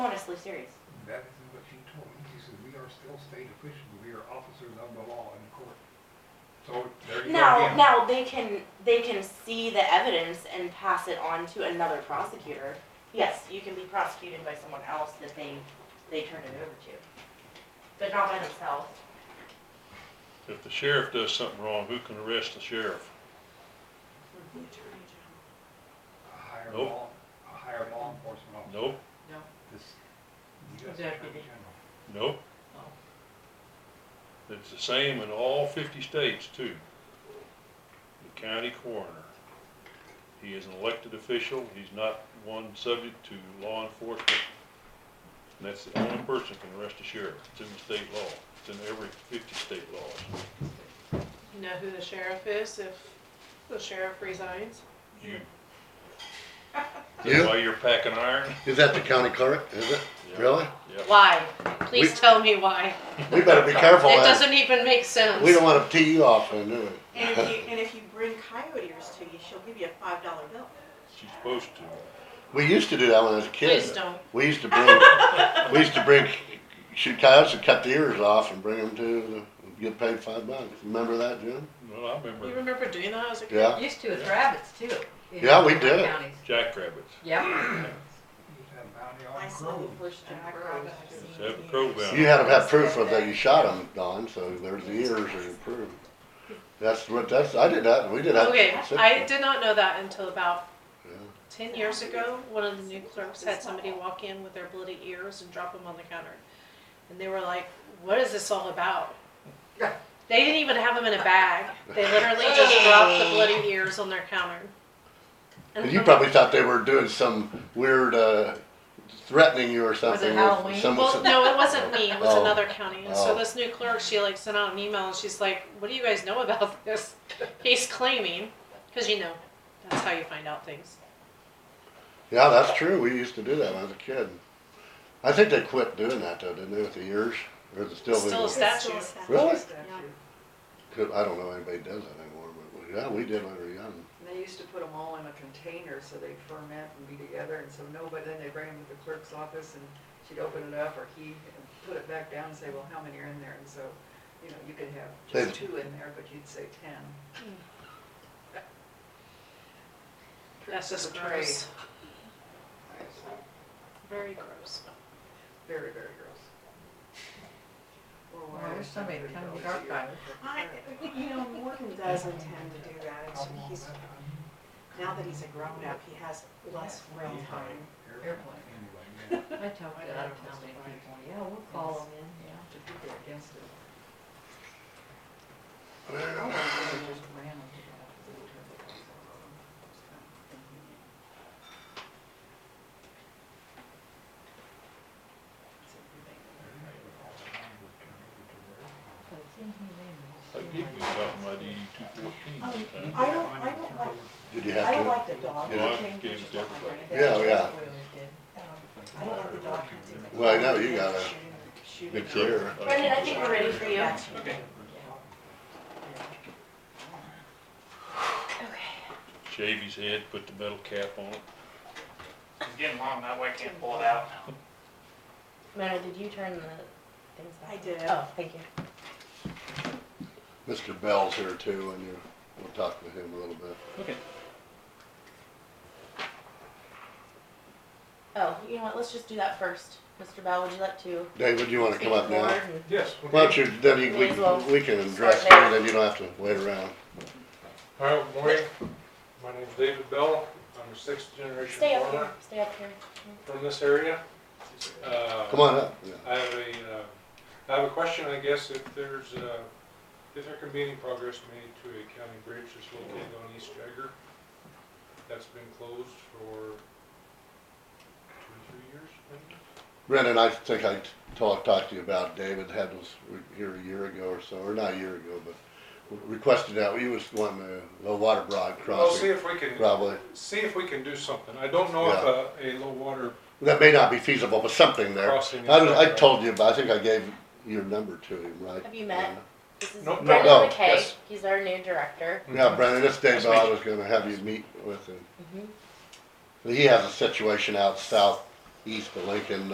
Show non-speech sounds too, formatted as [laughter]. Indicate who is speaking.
Speaker 1: honestly serious.
Speaker 2: That is what she told me. She said, we are still state officials. We are officers of the law in court. So there you go
Speaker 1: Now,
Speaker 2: again.
Speaker 1: now they can, they can see the evidence and pass it on to another prosecutor. Yes, you can be prosecuted by someone else that they, they turn it over to, but not by themselves.
Speaker 3: If the sheriff does something wrong, who can arrest the sheriff?
Speaker 2: A higher
Speaker 3: Nope.
Speaker 2: law, a higher law enforcement officer.
Speaker 3: Nope,
Speaker 2: This, the US Attorney
Speaker 4: Deputy.
Speaker 2: General.
Speaker 3: nope. It's the same in all fifty states too. The county coroner. He is an elected official, he's not one subject to law enforcement. And that's the only person that can arrest a sheriff. It's in the state law. It's in every fifty state laws.
Speaker 4: You know who the sheriff is if the sheriff resigns?
Speaker 3: You.
Speaker 5: You?
Speaker 3: While you're packing iron?
Speaker 5: Is that the county clerk? Is it?
Speaker 3: Yeah.
Speaker 5: Really?
Speaker 3: Yeah.
Speaker 4: Why? Please
Speaker 5: We-
Speaker 4: tell me why.
Speaker 5: We better be careful.
Speaker 4: It
Speaker 5: Ann.
Speaker 4: doesn't even make sense.
Speaker 5: We don't wanna tee you off, then, do
Speaker 6: And if
Speaker 5: we?
Speaker 6: you, and if you bring coyotes to you, she'll give you a five dollar bill.
Speaker 3: She's supposed to.
Speaker 5: We used to do that when I was a kid.
Speaker 4: Please don't.
Speaker 5: We used to bring, we used to bring, shoot coyotes and cut the ears off and bring them to, the- get paid five bucks. Remember that, Jim?
Speaker 3: Well, I
Speaker 4: You
Speaker 3: remember
Speaker 4: remember doing that as a kid?
Speaker 5: Yeah.
Speaker 7: Used to with rabbits too. in
Speaker 5: Yeah, we
Speaker 7: other
Speaker 5: did it.
Speaker 7: counties.
Speaker 3: jackrabbits.
Speaker 7: Yeah.
Speaker 2: You just had a bounty
Speaker 6: I
Speaker 2: on
Speaker 6: saw
Speaker 2: crows.
Speaker 6: them pushed in
Speaker 4: Yeah, I
Speaker 6: crows.
Speaker 4: grabbed it.
Speaker 3: Just have a crow bound.
Speaker 5: You had to have proof of that you shot them, Don, so there's the ears are your proof. That's what, that's, I did that, we did that.
Speaker 4: Okay, I did not know that until about
Speaker 5: Yeah.
Speaker 4: ten years ago. One of the new clerks had somebody walk in with their bloody ears and drop them on the counter. And they were like, what is this all about? They didn't even have them in a bag. They literally just dropped the bloody ears on their counter. And
Speaker 5: And you
Speaker 4: I'm
Speaker 5: probably thought they were doing some weird, uh, threatening you or something. with
Speaker 7: Halloween?
Speaker 5: some-
Speaker 4: Well, no, it wasn't me. It was
Speaker 5: Oh.
Speaker 4: another county. And
Speaker 5: Oh.
Speaker 4: so this new clerk, she like sent out an email and she's like, "What do you guys know about [laughs] this?" He's claiming, because you know, that's how you find out things.
Speaker 5: Yeah, that's true. We used to do that when I was a kid. I think they quit doing that though, didn't they, with the ears? Or is it still?
Speaker 4: Still
Speaker 5: legal?
Speaker 4: a statue.
Speaker 6: Still a statue.
Speaker 5: Really?
Speaker 6: Yeah.
Speaker 5: Could- I don't know anybody does that anymore, but we- yeah, we did when we were young.
Speaker 8: And they used to put them all in a container so they'd ferment and be together, and so nobody, then they'd bring them to the clerk's office, and she'd open it up, or he, and put it back down and say, well, how many are in there? And so, you know, you could have just
Speaker 5: They-
Speaker 8: two in there, but you'd say ten.
Speaker 4: That's just
Speaker 8: Tricks of the trade.
Speaker 4: gross. Very gross.
Speaker 8: Very, very gross. Or
Speaker 7: Well, I
Speaker 8: why
Speaker 7: wish
Speaker 8: is
Speaker 7: somebody'd
Speaker 8: somebody
Speaker 7: come to
Speaker 8: always
Speaker 7: Dark
Speaker 8: eating
Speaker 7: Eye.
Speaker 8: it?
Speaker 6: I, you know, Morgan does intend to do that, and so he's, now that he's a grown up, he has less real time.
Speaker 8: Airplane.
Speaker 2: Anyway,
Speaker 7: I talked to I don't know how many people. Yeah, we'll call them in, yeah.
Speaker 8: The people are against it. I
Speaker 5: Well,
Speaker 8: wonder if they just ran them to death with the turbo cars out of them. It's kind of inconvenient. It's inconvenient.
Speaker 7: But it's inhumane.
Speaker 3: I give you something like eighty-two fourteen sometimes.
Speaker 6: I don't, [laughs] I don't like,
Speaker 5: Did you
Speaker 6: I don't
Speaker 5: have
Speaker 6: like the dog
Speaker 5: Yeah.
Speaker 6: hunting.
Speaker 3: Gives it to everybody.
Speaker 5: Yeah, yeah.
Speaker 7: We always did.
Speaker 6: I don't like the dog hunting.
Speaker 5: Well, I know, you got a to?
Speaker 6: Shooting.
Speaker 5: Big ear.
Speaker 1: Brendan, I think we're ready for you.
Speaker 3: Shave his head, put the metal cap on it.
Speaker 9: It's getting long, that way I can't pull it out.
Speaker 1: Mona, did you turn the things back?
Speaker 6: I did.
Speaker 1: Oh, thank you.
Speaker 5: Mr. Bell's here too, and you, we'll talk with him a little bit.
Speaker 1: Oh, you know what, let's just do that first. Mr. Bell, would you like to?
Speaker 5: David, you wanna
Speaker 1: speak
Speaker 5: come up
Speaker 1: to the
Speaker 5: now?
Speaker 1: board and-
Speaker 2: Yes.
Speaker 5: Why don't you, then you,
Speaker 1: May as well
Speaker 5: we, we can
Speaker 1: start
Speaker 5: address it,
Speaker 1: there.
Speaker 5: then you don't have to wait around.
Speaker 10: Hi, good morning. My name's David Bell. I'm a sixth generation
Speaker 1: Stay up
Speaker 10: farmer
Speaker 1: here, stay up here.
Speaker 10: from this area. Uh,
Speaker 5: Come on up. Yeah.
Speaker 10: I have a, uh, I have a question, I guess, if there's, uh, if there can be any progress made to a county bridge that's located on East Jagger that's been closed for two, or three years, maybe?
Speaker 5: Brendan, I think I talked, talked to you about David had was here a year ago or so, or not a year ago, but requested that, he was wanting a low water broad
Speaker 10: Well, see
Speaker 5: crossing,
Speaker 10: if we can,
Speaker 5: probably.
Speaker 10: see if we can do something. I don't know if a, a low water
Speaker 5: That may not be feasible, but something there. I,
Speaker 10: crossing. is
Speaker 5: was- I
Speaker 10: done, right?
Speaker 5: told you, but I think I gave your number to him, right?
Speaker 1: Have you met? This is
Speaker 10: No, no,
Speaker 1: Brendan
Speaker 5: no,
Speaker 1: McKay,
Speaker 10: yes.
Speaker 1: he's our new director.
Speaker 5: Yeah, Brendan, this day
Speaker 9: Nice
Speaker 5: I
Speaker 9: meeting
Speaker 5: was gonna have you meet
Speaker 1: Mm-hmm.
Speaker 5: with him. He has a situation out southeast of Lincoln